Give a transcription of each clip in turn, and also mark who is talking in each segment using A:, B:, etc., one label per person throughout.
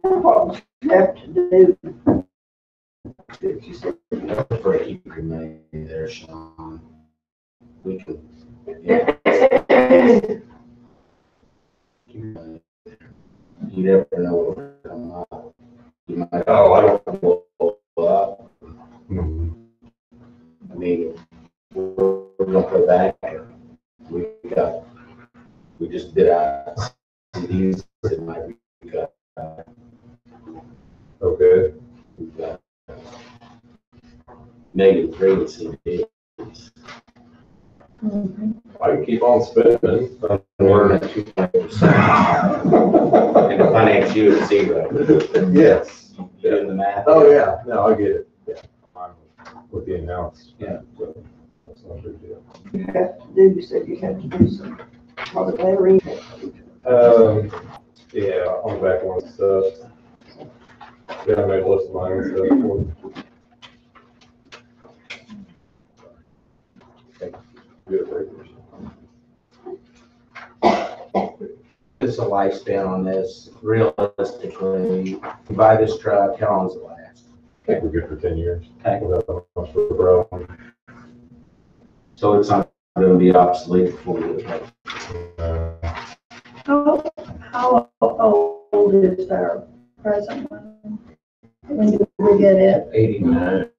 A: what was left to do. But you said,
B: Another break you could make there, Sean. We could. yeah, You never know what's coming up. You might.
C: Oh, I
B: don't. Up.
C: Mhm.
B: I mean, we're, we're gonna put back there. We got, we just did our CDs, it might be, we got, uh,
C: Okay,
B: we got uh, negative three CDs.
C: I can keep on spending.
B: We're at two percent, and the finance you at zero.
C: Yes.
B: You doing the math?
C: Oh, yeah, no, I get it, yeah. I'm With the announce.
B: Yeah.
C: So, That's not a big deal.
A: you have to do, you said you have to do some, what was that reason?
C: Um, yeah, on the back one stuff. Yeah, I made a list of mine and stuff. Good papers.
B: It's a lifespan on this, realistically, you buy this truck, how long does it last?
C: I think we're good for ten years.
B: Okay.
C: Without much of a problem.
B: So it's not gonna be obsolete before you get it.
C: Uh,
A: How, how old is our present one? When did we get it?
B: Eighty-nine.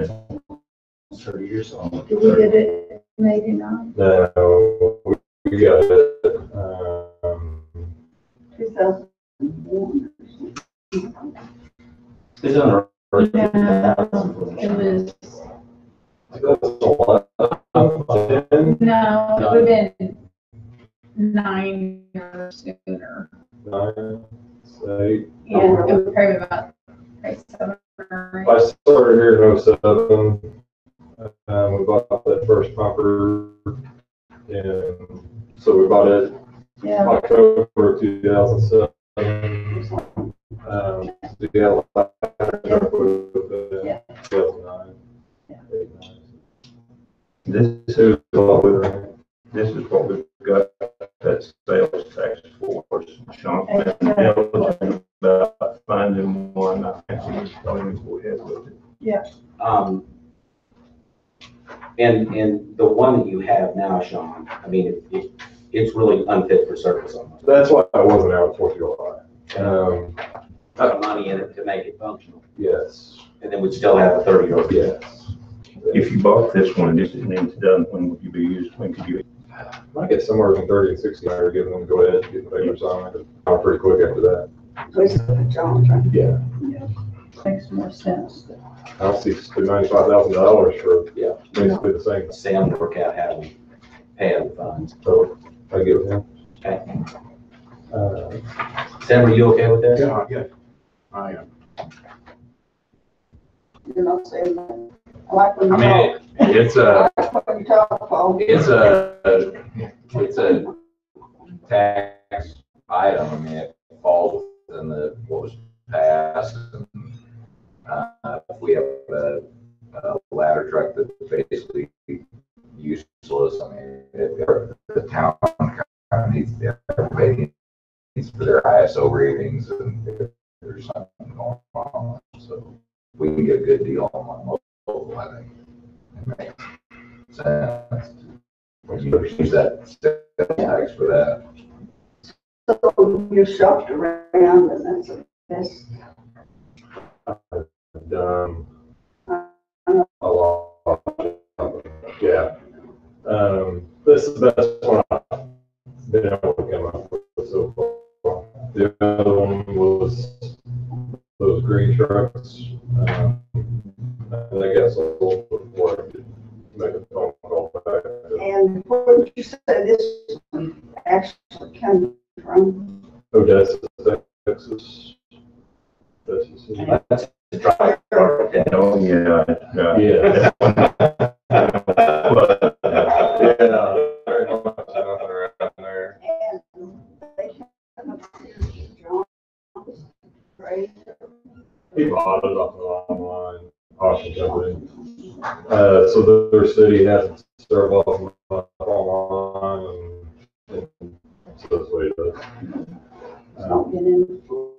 B: Thirty years old.
A: Did we get it in eighty-nine?
C: No, we got it, um,
A: Two thousand and one.
B: It's under.
D: It was,
C: that's a lot. Ten,
D: no, it would have been nine or sooner.
C: nine, eight.
D: Yeah, it would probably been about, like, seven or
C: I started here in oh-seven. Um, we bought that first pumper and so we bought it
A: Yeah,
C: October two thousand seven. Um, so yeah, last year was, uh,
A: Yeah.
C: 2009.
A: Yeah.
E: This,
C: Two, twelve,
E: this is what we've got, that sales tax force, Sean,
A: Okay.
E: been diligent about finding one, I think we just going to go ahead with it.
B: Um, and, and the one that you have now, Sean, I mean, it- it, it's really unfit for service almost.
C: that's why I wasn't out Fourth of July. Um,
B: Put the money in it to make it functional,
C: yes,
B: and then we'd still have a thirty-year-old.
C: yes.
E: If you bought this one, this isn't even done, when would you be used, when could you?
C: I get somewhere between thirty and sixty, I would give them, go ahead, get the papers on it, I'm pretty quick after that.
A: please, John, trying
C: Yeah.
A: to make more sense.
C: I don't see ninety-five thousand dollars for
B: Yeah.
C: basically the same,
B: Sam work out how we pay out the funds.
C: so I get with him.
B: Okay.
C: Uh,
B: Sam, are you okay with that?
E: yeah. I am.
A: You know, say, I like when
E: I
A: you
E: mean,
A: talk,
E: it's
A: I
E: a,
A: like when you talk, Paul.
E: it's a, it's a tax item, I mean, it falls within the, what was passed. Uh, we have a, a ladder truck that's basically useless, I mean, it, the town kind of needs, everybody needs for their ISO ratings and if there's something going on, so we can get a good deal on mobile, I think. It makes sense. When you use that tax for that.
A: So you shopped around and that's a best.
C: I've done a lot, yeah. Um, this is the best one I've been able to come up with so far. The other one was those green trucks. um, And I guess a little before I could make a phone call back.
A: And where would you say this actually came from?
C: Odessa, Texas. Texas.
B: That's the driver.
E: Oh, yeah, yeah.
C: Yeah.
E: But, uh,
C: Yeah. Very much nothing around there.
A: And they came up to John's, right?
C: He bought it off the online auction company. Uh, so their city has it served off online and and so that's what he does.
A: Don't get in.